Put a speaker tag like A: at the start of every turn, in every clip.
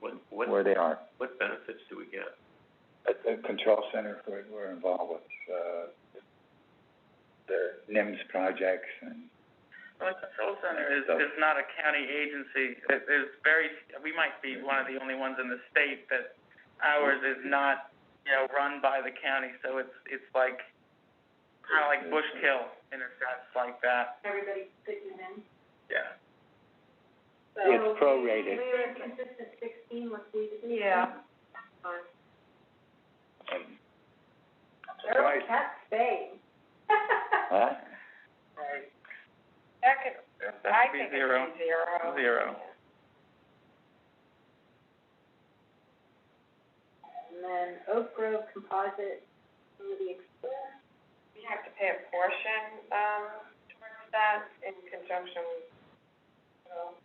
A: What,
B: where they are.
A: what benefits do we get?
B: At the control center, we're, we're involved with, uh, their NIMS projects and.
C: Well, the Control Center is,
B: So-
C: is not a county agency. It is very, we might be one of the only ones in the state that ours is not, you know, run by the county, so it's, it's like, kinda like Bushkill in a sense like that.
D: everybody fitting in.
C: Yeah.
D: So
B: It's prorated.
D: We were consistent sixteen, let's leave it. Yeah.
B: Right.
D: That's Spain.
B: Huh?
C: Right.
D: That could,
C: That could be zero.
D: zero.
C: Zero.
D: And then Oak Grove Composite, some of the expense. We have to pay a portion, um, towards that in conjunction with, you know,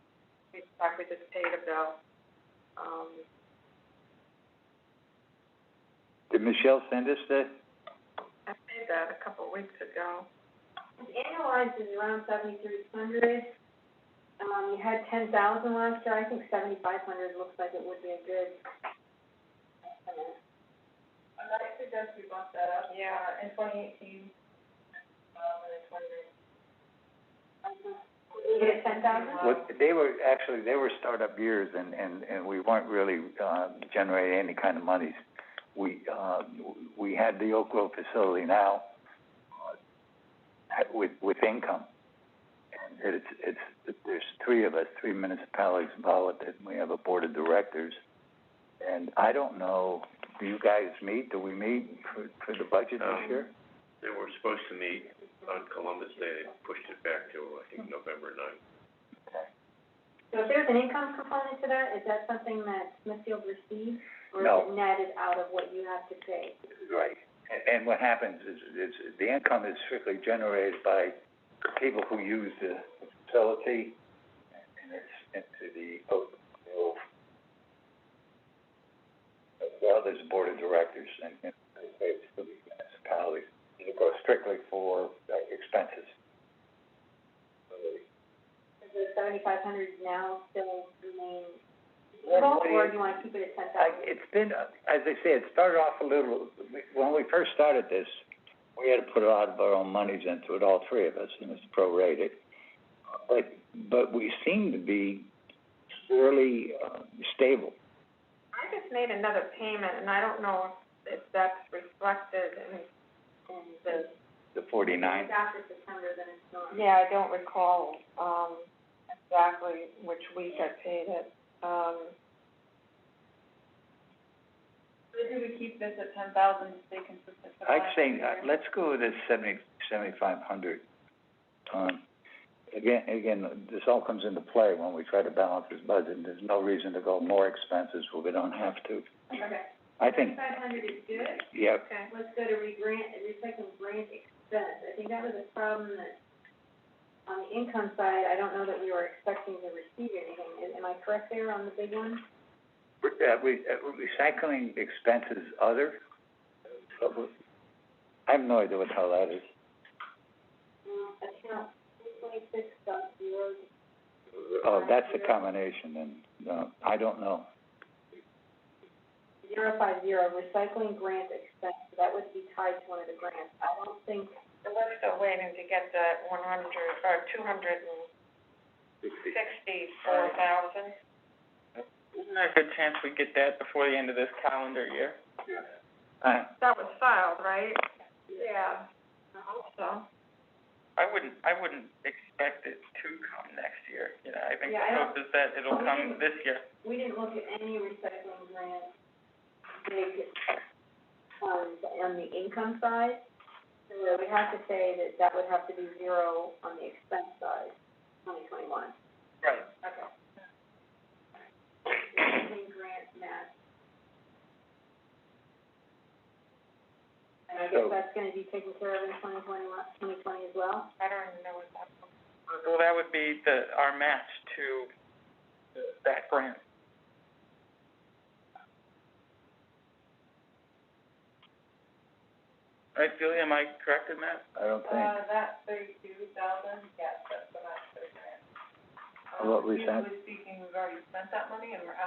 D: we, like we just paid a bill, um.
B: Did Michelle send us the?
D: I paid that a couple weeks ago. It's annualized is around seventy-three hundred. Um, you had ten thousand last year, I think seventy-five hundred looks like it would be a good estimate. I suggest we bump that up. Yeah. In twenty eighteen, um, and in twenty nineteen. You get ten thousand?
B: What, they were, actually, they were startup years and, and, and we weren't really, uh, generating any kind of monies. We, uh, we had the Oak Grove facility now, uh, with, with income. And it's, it's, there's three of us, three municipalities involved, and we have a board of directors. And I don't know, do you guys meet, do we meet for, for the budget
A: Um,
B: this year?
A: They were supposed to meet on Columbus Day, they pushed it back to, I think, November ninth.
D: So if there's an income component to that, is that something that Smithfield receives? Or is
B: No.
D: it netted out of what you have to pay?
B: Right. And, and what happens is, is the income is strictly generated by people who use the facility and it's into the, oh, oh. Well, there's a board of directors and, and it's the municipalities. It goes strictly for uh, expenses.
D: Does the seventy-five hundred now still remain
B: What-
D: equal,
B: what do
D: or
B: you-
D: do you wanna keep it at ten
B: I,
D: thousand?
B: it's been, uh, as I say, it started off a little, when we first started this, we had to put a lot of our own monies into it, all three of us, and it's prorated. But, but we seem to be fairly, uh, stable.
D: I just made another payment, and I don't know if that's reflected in, in the.
B: The forty-nine?
D: It's after September, then it's not. Yeah, I don't recall, um, exactly which week I paid it, um. Maybe we keep this at ten thousand to stay consistent for
B: I'd say, uh, let's go with the seventy, seventy-five hundred. Um, again, again, this all comes into play when we try to balance this budget, and there's no reason to go more expenses where we don't have to.
D: Okay,
B: I think,
D: five hundred is good.
B: yeah,
D: Okay, let's go to regrant, recycling grant expense, I think that was a problem that, on the income side, I don't know that we were expecting to receive anything, Am- am I correct there on the big one?
B: Re- uh, re- uh, recycling expenses other? I have no idea what the hell that is.
D: Um, account three twenty-six dot zero,
B: Oh, that's a combination and, uh, I don't know.
D: zero five zero, recycling grant expense, that would be tied to one of the grants, I don't think. We're still waiting to get that one hundred, or two hundred and sixty-four thousand.
C: Isn't there a good chance we get that before the end of this calendar year?
B: Uh,
D: That was filed, right? Yeah. I hope so.
C: I wouldn't, I wouldn't expect it to come next year, you know, I think the
D: Yeah, I
C: hope is that it'll come this year.
D: We didn't look at any recycling grant, big funds on the income side. So we have to say that that would have to be zero on the expense side, twenty twenty-one.
C: Right.
D: Okay. Recycling grant match. And I guess
B: So-
D: that's gonna be taken care of in twenty twenty-one, twenty twenty as well? I don't even know what that.
C: Well, that would be the, our match to that grant. Right, Julie, am I correct in that?
B: I don't think,
D: Uh, that thirty-two thousand, yes, that's the match for the grant. Uh,
B: What we Um, usually
D: speaking, we've already spent that money and we're